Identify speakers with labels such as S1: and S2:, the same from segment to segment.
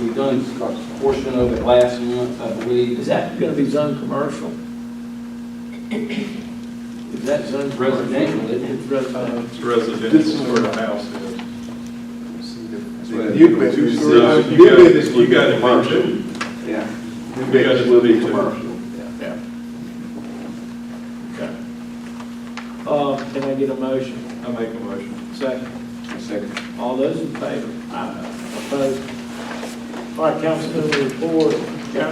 S1: a portion of it last month, I believe.
S2: Is that gonna be zoned commercial? Is that zoned commercial?
S1: Residential, isn't it?
S2: It's residential.
S3: It's residential where the house is.
S4: New business.
S3: So
S4: is-
S3: if
S4: New
S3: you
S4: business.
S3: got,
S4: would
S3: you
S4: be
S3: got it
S4: commercial.
S3: commercial.
S1: Yeah.
S4: New business would be commercial.
S3: Okay,
S2: Uh, can I get a motion?
S3: I make a motion.
S2: Second.
S1: Second.
S2: All those in favor? Opposed? All right, councilman, report. uh,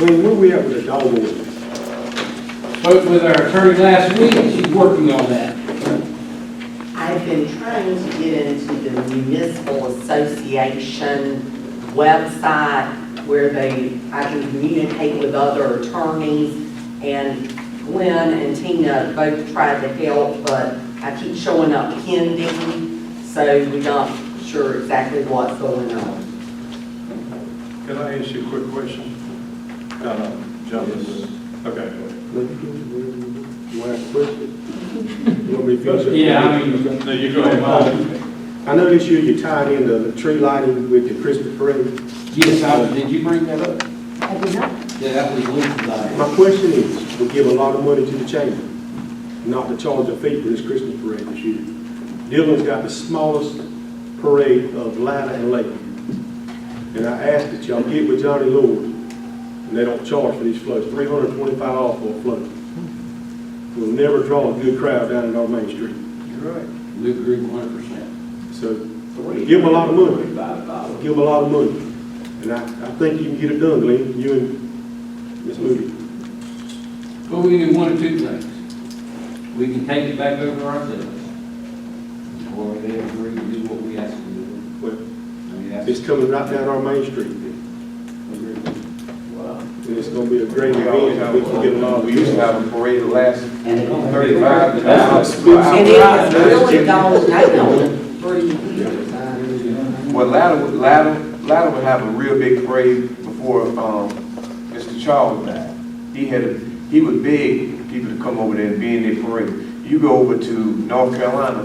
S5: When were we at with the dog ordinance?
S1: Spoke with our attorney last week, she's working on that.
S6: I've been trying to get into the municipal association website where they, I can communicate with other attorneys. And Gwen and Tina both tried to help, but I keep showing up pending, so we're not sure exactly what's going on.
S3: Can I ask you a quick question?
S4: Uh,
S3: No, no, jump in. Okay, go ahead.
S5: Let me get you last question. You want me to finish it?
S1: Yeah, I mean-
S3: No, you go ahead.
S5: I know this year you tied in the tree lighting with the Christmas parade.
S1: Yes, I, was- did you bring that up?
S6: I did not
S1: Yeah, that was Luke's idea.
S5: My question is, we give a lot of money to the chamber, not to charge a fee for this Christmas parade this year. Dillon's got the smallest parade of Lida and Lakeview. And I asked that y'all get with Johnny Lord, and they don't charge for these floats, three hundred and twenty-five dollars for a float. We'll never draw a good crowd down in our main street.
S1: Luke agreed one hundred percent.
S5: So give them a lot of money. Give them a lot of money. And I, I think you can get it done, Glenn, you and Ms. Moody.
S1: But we can do one of two things. We can take it back over ourselves. Or they agree to do what we ask them to do.
S5: Well,
S1: I mean, that's-
S5: It's coming right down our main street. And it's gonna be a great event, we can get a lot of.
S4: Uh, We used to have a parade the last uh,
S1: And it don't-
S4: thirty-five to now. it's two
S6: And it
S4: hours.
S6: has really gone down three years.
S4: Well, Latta, would- Latta, Latta would have a real big parade before, um, Mr. Charles died. He had, a he would beg people to come over there and be in their parade. You go over to North Carolina,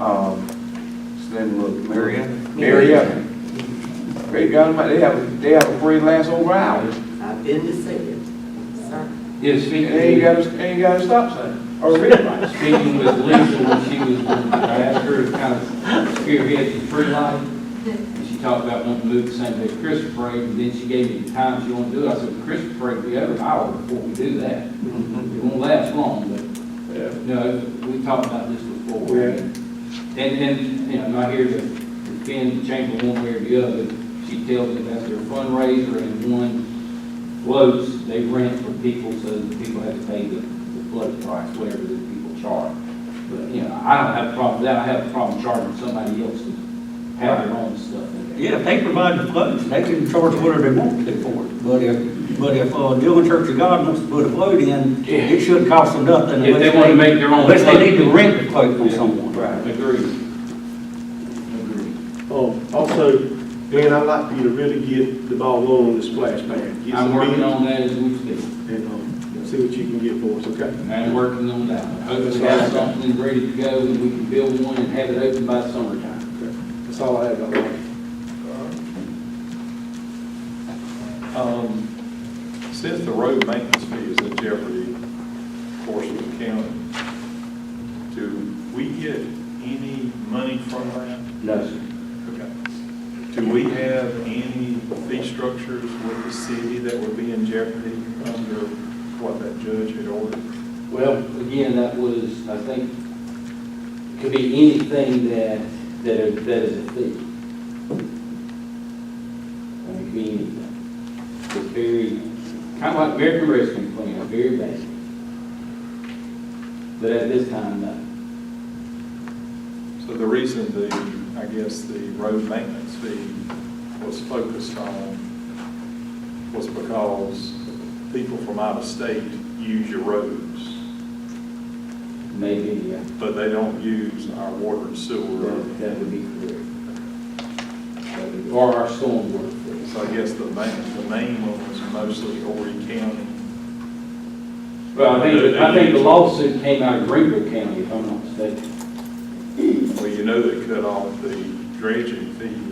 S4: um, what's the name of it? Marietta? Marietta. Great God Almighty, they have, they have a parade last over hours.
S6: I've been to see it, sir.
S1: Yeah, speaking.
S4: They ain't got a, they ain't got a stop sign or a red light.
S1: speaking with Lisa when she was, I asked her to kind of spearhead the free life. And she talked about wanting to move the same day as Christmas parade, and then she gave me the time she wanted to do it. I said, "Well, Christmas parade will be over an hour before we do that. It won't last long, but,
S3: Yeah.
S1: no, we talked about this before.
S5: Yeah.
S1: And, and, you know, I'm not here to defend the chamber one way or the other. She tells me that's their fundraiser and one floats, they rent for people, so the people have to pay the, the float price, whatever the people charge. But, you know, I don't have a problem with that, I have a problem charging somebody else to have their own stuff in there.
S7: Yeah, if they provide the floats, they can charge whatever they want to for it. But if, but if uh, Dillon Church of God wants to put a float in, it shouldn't cost them nothing.
S1: If they
S7: unless
S1: wanna make their own
S7: Unless
S1: float.
S7: they need to rent the float from someone.
S1: Agreed. Agreed.
S5: Um, also, Glenn, I'd like for you to really get the ball rolling on the splash pad. Get
S1: I'm
S5: some
S1: working
S5: bids
S1: on that as we speak,
S5: And, um, see what you can get for us, okay?
S1: and I'm working on that. Hopefully have something ready to go, and we can build one and have it open by summertime.
S5: That's all I have, Dr. Lawrence.
S3: Um, Since the road maintenance fee is in jeopardy, of course, with the county, do we get any money from that?
S1: No, sir.
S3: Okay. Do we have any fee structures with the city that would be in jeopardy under what that judge had ordered?
S1: Well, again, that was, I think, could be anything that, that, that is a fee. I mean, it could be anything. It's very, kind of like American Rescue Plan, very basic. But at this time, no.
S3: So the reason the, I guess, the road maintenance fee was focused on was because people from out of state use your roads,
S1: maybe, yeah,
S3: but they don't use our water and sewer.
S1: that that would be correct. That would be- Or our storm work.
S3: So I guess the main, the main one was mostly Horry County.
S1: Well, I think, I think the lawsuit came out of Greenville County, if I'm not mistaken.
S3: Well, you know they cut off the dredging fee